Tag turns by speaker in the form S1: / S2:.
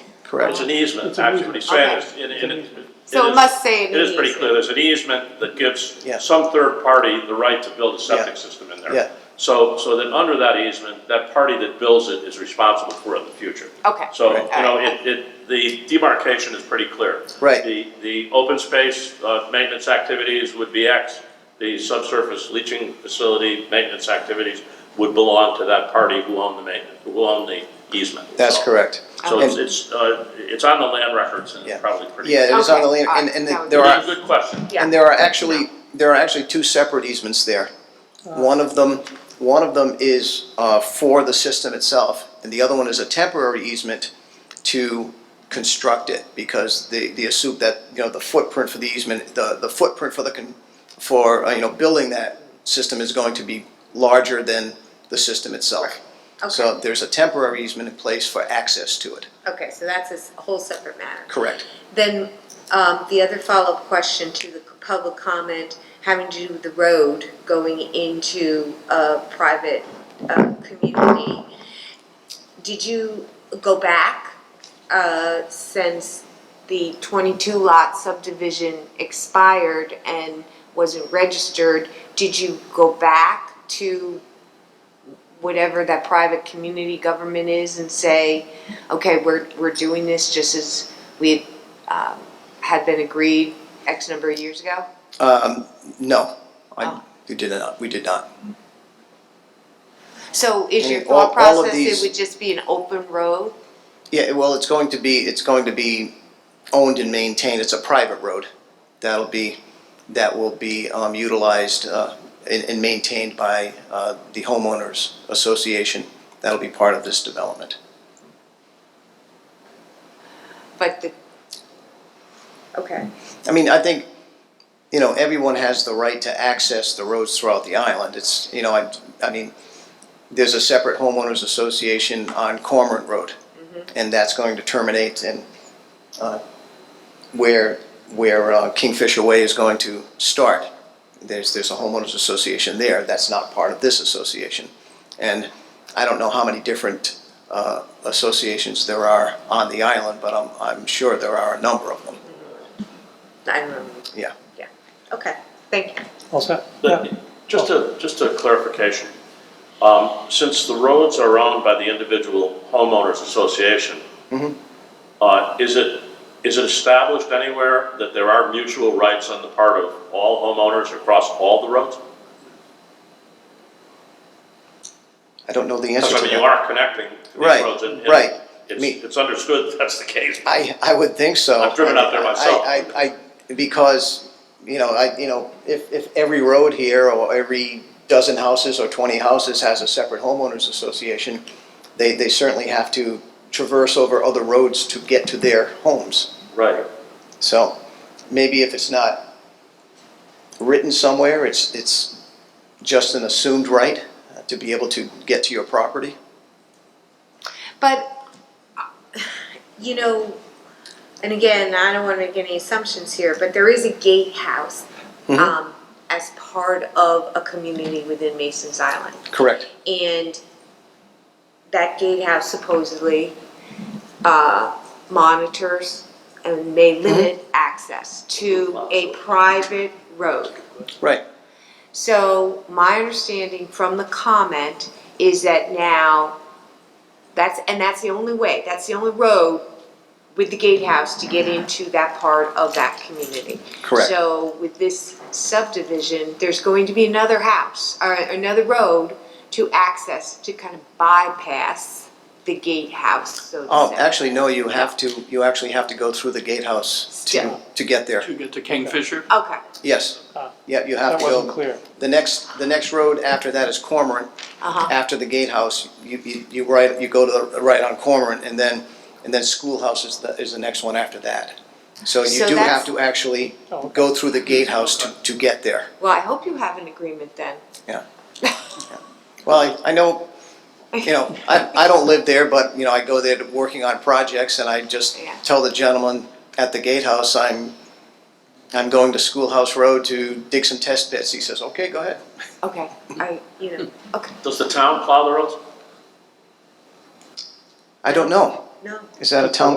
S1: It's
S2: correct?
S1: an easement,
S2: It's an
S1: that's what he said, it's- and- and it-
S3: So
S1: is-
S3: it must say.
S1: It is pretty
S3: needs-
S1: clear, there's an easement that gives
S2: Yeah.
S1: some third party the right to build a
S2: Yeah.
S1: septic system in there.
S2: Yeah.
S1: So, so that under that easement, that party that builds it is responsible for it in the future.
S3: Okay.
S1: So,
S2: Right.
S1: you know, it, it, the demarcation is pretty clear.
S2: Right.
S1: The, the open space, uh, maintenance activities would be X. The subsurface leaching facility maintenance activities would belong to that party who owned the maintenance, who owned the easement.
S2: That's
S1: So-
S2: correct.
S1: So it's,
S2: And-
S1: it's, uh, it's on the land records and
S2: Um, Yeah.
S1: it's probably pretty.
S2: Yeah, it is on the
S3: Okay,
S2: land, and,
S3: alright,
S2: and
S3: that was-
S2: there are,
S1: It's a good question.
S3: Yeah.
S2: And there are actually, there are actually two separate easements there. One of them, one of them is uh, for the system itself, and the other one is a temporary easement to construct it, because they, they assume that, you know, the footprint for the easement, the, the footprint for the, con- for, uh, you know, building that system is going to be larger than the system itself. So there's a temporary easement in place for access to it,
S4: Okay, so that's a s- whole separate matter.
S2: correct?
S4: Then, um, the other follow-up question to the public comment, having to do with the road going into a private, uh, community. Did you go back, uh, since the twenty-two lot subdivision expired and wasn't registered? Did you go back to whatever that private community government is and say, okay, we're, we're doing this just as we had um, had been agreed X number of years ago?
S2: No, I,
S4: Oh.
S2: we did not, we did not.
S4: So is your
S2: And all-
S4: thought
S2: all of
S4: process
S2: these-
S4: it would just be an open road?
S2: Yeah, well, it's going to be, it's going to be owned and maintained, it's a private road. That'll be, that will be um, utilized uh, and and maintained by uh, the homeowners association. That'll be part of this development.
S4: But the, okay,
S2: I mean, I think, you know, everyone has the right to access the roads throughout the island. It's, you know, I, I mean, there's a separate homeowners association on Cormorant Road. And that's going to terminate and, uh, where, where uh, Kingfisher Way is going to start. There's, there's a homeowners association there. That's not part of this association. And I don't know how many different, uh, associations there are on the island, but I'm, I'm sure there are a number of them.
S4: I don't know.
S2: Yeah.
S4: Yeah, okay, thank you.
S5: All set?
S1: But Just a, just a clarification. Um, Since the roads are owned by the individual homeowners association,
S2: Mm-hmm.
S1: uh, is it, is it established anywhere that there are mutual rights on the part of all homeowners across all the roads?
S2: I don't know the answer
S1: Because
S2: to
S1: I mean, you
S2: that.
S1: are connecting these
S2: Right,
S1: roads. and- and
S2: right. Me-
S1: It's, it's understood that's the case.
S2: I, I would think so.
S1: I've driven out there myself.
S2: I, I, I, because, you know, I, you know, if, if every road here or every dozen houses or twenty houses has a separate homeowners association, they, they certainly have to traverse over other roads to get to their homes.
S1: Right.
S2: So maybe if it's not written somewhere, it's, it's just an assumed right uh, to be able to get to your property.
S4: But, uh, you know, and again, I don't wanna make any assumptions here, but there is a gatehouse, um, as part of a community within Mason's Island.
S2: Correct.
S4: and that gatehouse supposedly uh, monitors and may limit access to a private road.
S2: Right.
S4: So my understanding from the comment is that now, that's, and that's the only way, that's the only road with the gatehouse to get into that part of that community.
S2: Correct.
S4: So with this subdivision, there's going to be another house, or another road to access, to kind of bypass the gatehouse, so to
S2: Oh,
S4: say.
S2: actually, no, you have to, you actually have to go through the gatehouse to,
S4: Still.
S2: to get there.
S6: To get to Kingfisher?
S4: Okay,
S2: Yes,
S5: Ah.
S2: yeah, you have
S5: That
S2: to go.
S5: wasn't clear.
S2: The next, the next road after that is Cormorant.
S4: Uh-huh.
S2: After the gatehouse, you, you, you right, you go to the, right on Cormorant, and then, and then Schoolhouse is the, is the next one after that. So you
S4: So
S2: do have
S4: that's-
S2: to actually
S5: Oh, okay.
S2: go through the gatehouse to, to get there,
S4: well, I hope you have an agreement then.
S2: yeah. Yeah. Well, I, I know, you know, I, I don't live there, but, you know, I go there to, working on projects, and I just
S4: Yeah.
S2: tell the gentleman at the gatehouse, I'm, I'm going to Schoolhouse Road to dig some test pits. He says, okay, go ahead.
S4: Okay, I, you know, okay,
S1: Does the town plow the roads?
S2: I don't know.
S4: no.
S2: Is that a town